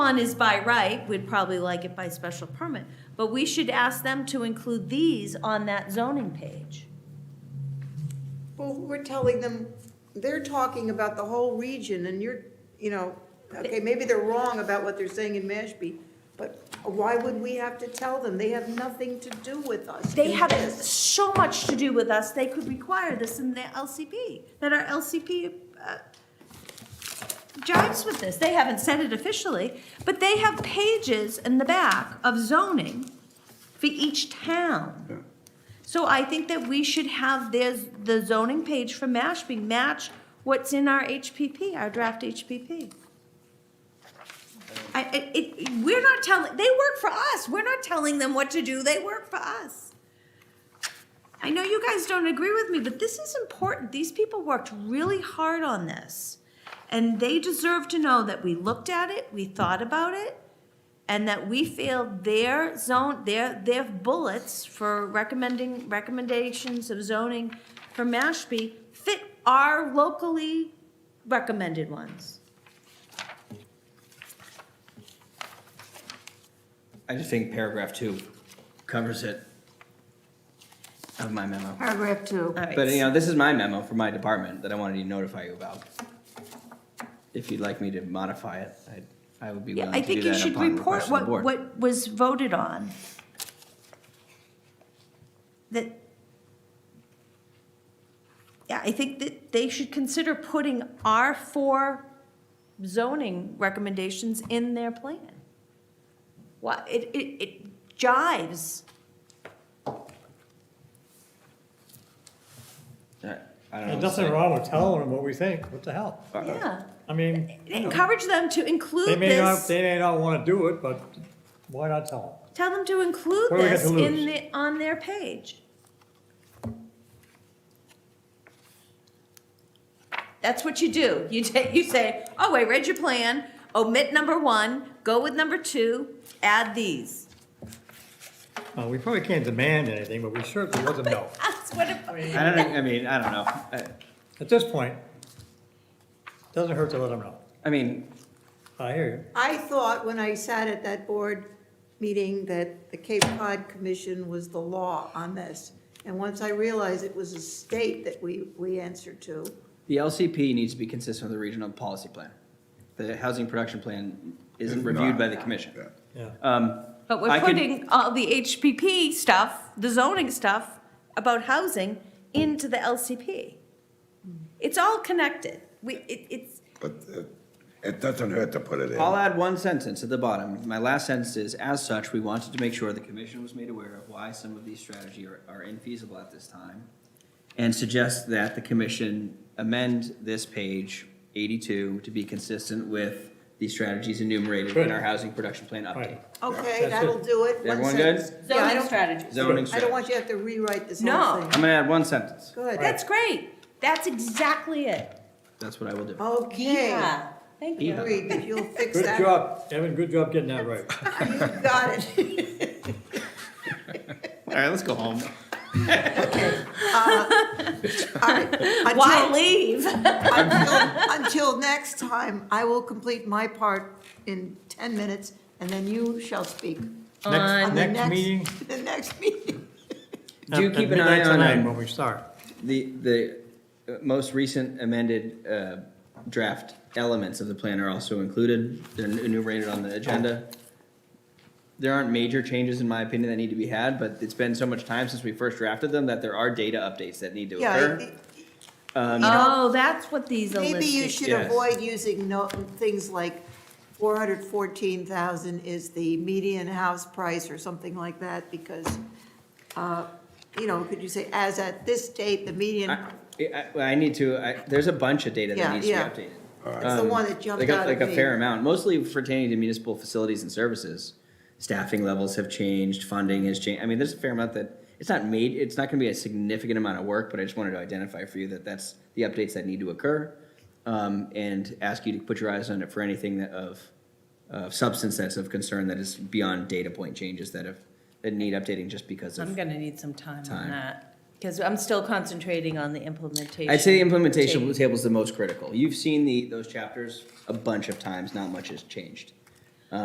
one is by right, we'd probably like it by special permit, but we should ask them to include these on that zoning page. Well, we're telling them, they're talking about the whole region and you're, you know, okay, maybe they're wrong about what they're saying in Mashpee, but why would we have to tell them? They have nothing to do with us. They in have this. so much to do with us, they could require this in their LCP, that our LCP uh, jives with this. They haven't said it officially, but they have pages in the back of zoning for each town. So I think that we should have their, the zoning page for Mashpee match what's in our HPP, our draft HPP. I, it, it, we're not telling, they work for us, we're not telling them what to do, they work for us. I know you guys don't agree with me, but this is important. These people worked really hard on this. And they deserve to know that we looked at it, we thought about it, and that we feel their zone, their, their bullets for recommending, recommendations of zoning for Mashpee fit our locally recommended ones. I just think paragraph two covers it of my memo. Paragraph two. All right. But, you know, this is my memo for my department that I wanted to notify you about. If you'd like me to modify it, I, I would be Yeah, willing I to do think you that should upon report request of the what, board. what was voted on. That. Yeah, I think that they should consider putting our four zoning recommendations in their plan. What, it, it, it jives. Uh, I don't know. There's nothing wrong with telling them what we think, what the hell? Uh, Yeah, I mean, encourage them to they include may not, this, they may not wanna do it, but why not tell tell them to include What do we got this to in lose? the, on their page. That's what you do. You take, you say, oh, I read your plan, omit number one, go with number two, add these. them? Uh, we probably can't demand anything, but we certainly let them know. That's what it, I don't, think- I mean, I don't know. Uh, I, At this point, doesn't hurt to let them know. I mean, I hear you. I thought when I sat at that board meeting that the Cape Cod Commission was the law on this. And once I realized it was a state that we, we answered to, the LCP needs to be consistent with the regional policy plan. The housing production plan isn't It's reviewed not, by the yeah, commission. yeah. Yeah. Um, but I we're could- putting all the HPP stuff, the zoning stuff about housing into the LCP. It's all connected. We, it, it's, But it- it doesn't hurt to put it in. I'll add one sentence at the bottom. My last sentence is, as such, we wanted to make sure the commission was made aware of why some of these strategies are, are infeasible at this time. And suggest that the commission amend this page eighty-two to be consistent with the strategies enumerated in our Good. housing production plan update. Right. okay, That's it. that'll do it. One Everyone sentence. good? Yeah, I don't- strategies. Zoning I don't strategy. want you to have to rewrite this No. whole thing. I'm gonna add one sentence. Good. That's great. That's exactly it. That's what I will do. Okay. Yeah. Thank you. Yeah. Agreed, that you'll fix Good that. job, Evan, good job getting that right. You got it. All right, let's go home. All right. Why Until- leave? Until until next time, I will complete my part in 10 minutes, and then you shall speak. Next, On the next meeting. The next meeting. Do at- keep at an eye midnight on, tonight um, When we start. The, the uh, most recent amended uh, draft elements of the plan are also included. They're enumerated on the agenda. There aren't major changes, in my opinion, that need to be had, but it's been so much time since we first drafted them that there are data updates that need to Yeah, occur. I- Oh, that's what these are maybe you listed. should yes. avoid using no, things like 414,000 is the median house price or something like that, because, uh, you know, could you say, as at this date, the median, I, I- I need to, I, there's a bunch of data Yeah, that needs to be yeah. updated. it's the Um, one that jumped Like a, out like at a fair me. amount, mostly pertaining to municipal facilities and services. Staffing levels have changed, funding has changed. I mean, there's a fair amount that, it's not made, it's not gonna be a significant amount of work, but I just wanted to identify for you that that's the updates that need to occur. Um, and ask you to put your eyes on it for anything that of, of substance that's of concern that is beyond data point changes that have, that need updating just because I'm of. gonna need some time Time. on that, because I'm still concentrating on the implementation. I'd say the implementation Change. table is the most critical. You've seen the, those chapters a bunch of times, not much has changed.